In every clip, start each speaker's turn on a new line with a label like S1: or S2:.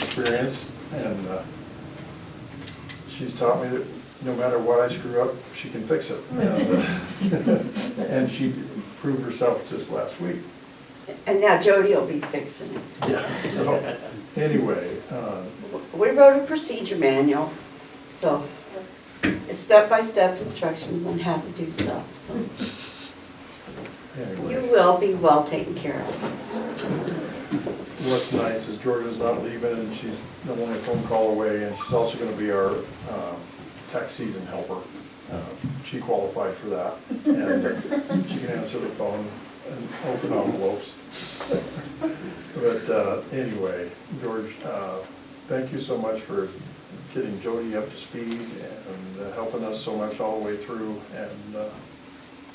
S1: experience, and uh, she's taught me that no matter what I screw up, she can fix it. And she proved herself just last week.
S2: And now Jody will be fixing it.
S1: Yeah. So, anyway, uh,
S2: We wrote a procedure manual, so it's step-by-step instructions on how to do stuff, so you
S1: anyway,
S2: will be well taken care of.
S1: what's nice is Georgia's not leaving, and she's the only phone call away, and she's also gonna be our um, tax season helper. Uh, She qualified for that, and she can answer the phone and open envelopes. But uh, anyway, George, uh, thank you so much for getting Jody up to speed and uh, helping us so much all the way through and, uh,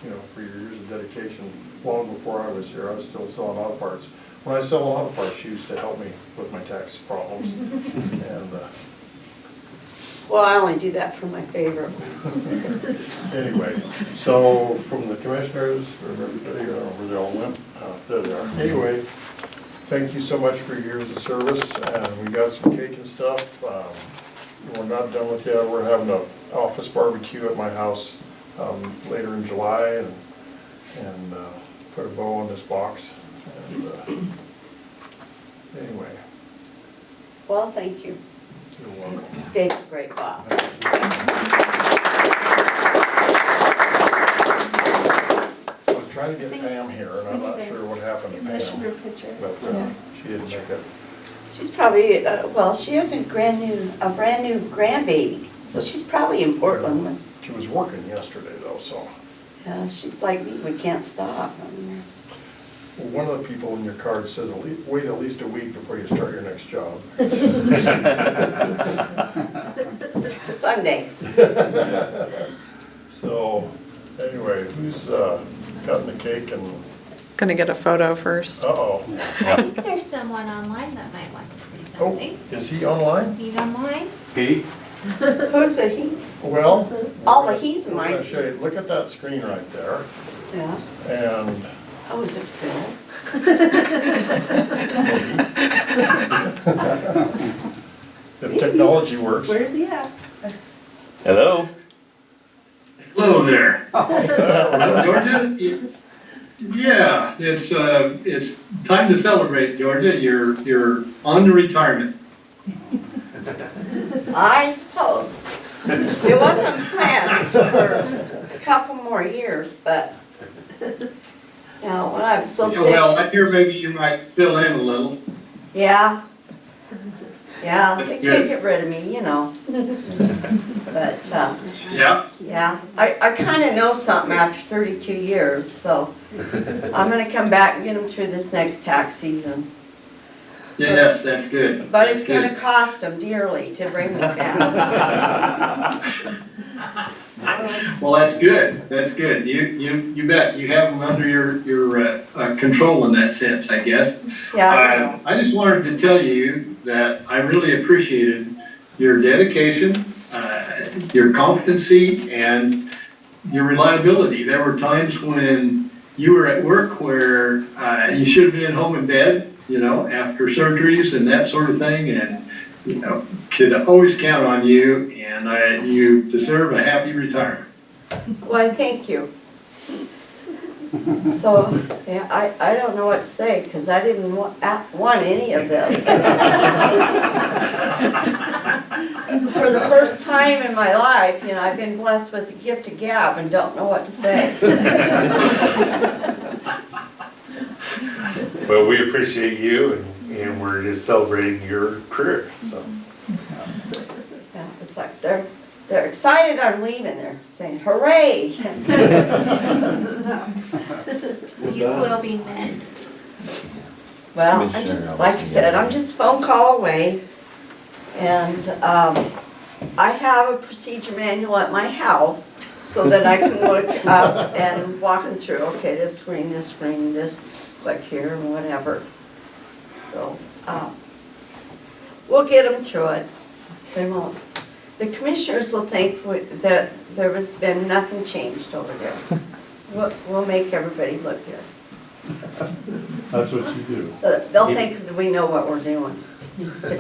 S1: you know, for your years of dedication. Long before I was here, I was still selling auto parts. When I sell auto parts, she used to help me with my tax problems. And uh,
S2: Well, I only do that for my favorite ones.
S1: anyway, so from the commissioners, from everybody, I don't know where they all went, uh, there they are. Anyway, thank you so much for your years of service, and we got some cake and stuff. Um, We're not done with you, we're having an office barbecue at my house um, later in July, and, and uh, put a bow on this box. And uh, Anyway,
S2: Well, thank you.
S1: you're welcome.
S2: Dave's a great boss.
S1: I'm trying to get Pam here, and I'm not sure what happened to
S3: Commissioner
S1: Pam.
S3: picture.
S1: But uh, she didn't make it.
S2: She's probably, uh, well, she has a grand new, a brand new grandbaby, so she's probably in Portland with,
S1: She was working yesterday, though, so.
S2: uh, she's like me, we can't stop. I mean, that's-
S1: Well, One of the people in your card says, "At lea- wait at least a week before you start your next job.
S2: Sunday.
S1: So, anyway, who's uh, cutting the cake and,
S4: Gonna get a photo first.
S1: uh-oh.
S5: I think there's someone online that might want to say
S1: Oh,
S5: something.
S1: is he online?
S5: He's online.
S6: Pete?
S2: Who's the he?
S1: Well.
S2: All the he's
S1: we're gonna
S2: mine.
S1: show you. Look at that screen right there,
S2: Yeah.
S1: and
S2: Oh, is it Phil?
S1: if technology works.
S3: Where's he at?
S7: Hello?
S8: Hello there. Uh, Georgia? y- Yeah, it's, uh, it's time to celebrate, Georgia. You're, you're on to retirement.
S2: I suppose. It wasn't planned for a couple more years, but, no, when I was so sick,
S8: Well, I hear maybe you might fill in a little.
S2: yeah. Yeah, they
S8: That's
S2: can't
S8: good.
S2: get rid of me, you know. But, uh,
S8: Yeah.
S2: yeah, I, I kinda know something after thirty-two years, so I'm gonna come back and get them through this next tax season.
S8: Yes, that's good.
S2: But it's
S8: That's good.
S2: gonna cost them dearly to bring me back.
S8: Well, that's good. That's good. You, you, you bet. You have them under your, your, uh, uh, control in that sense, I guess.
S2: Yeah, I know.
S8: Uh, I just wanted to tell you that I really appreciated your dedication, uh, your competency, and your reliability. There were times when you were at work where uh, you should have been home in bed, you know, after surgeries and that sort of thing, and, you know, could always count on you, and I- you deserve a happy retirement.
S2: Why, thank you. So, yeah, I, I don't know what to say, because I didn't wa- a- want any of this. For the first time in my life, you know, I've been blessed with the gift of gab and don't know what to say.
S6: Well, we appreciate you and, and we're just celebrating your career, so.
S2: Yeah, It's like they're, they're excited I'm leaving, they're saying hooray.
S5: You will be missed.
S2: Well, I'm just, like I said, I'm just a phone call away. And um, I have a procedure manual at my house so that I can look up and walking through, okay, this screen, this screen, this, click here and whatever. So, um, we'll get them through it. They won't, the commissioners will think we- that there has been nothing changed over there. We'll, we'll make everybody look good.
S6: That's what you do.
S2: Uh, They'll think that we know what we're doing.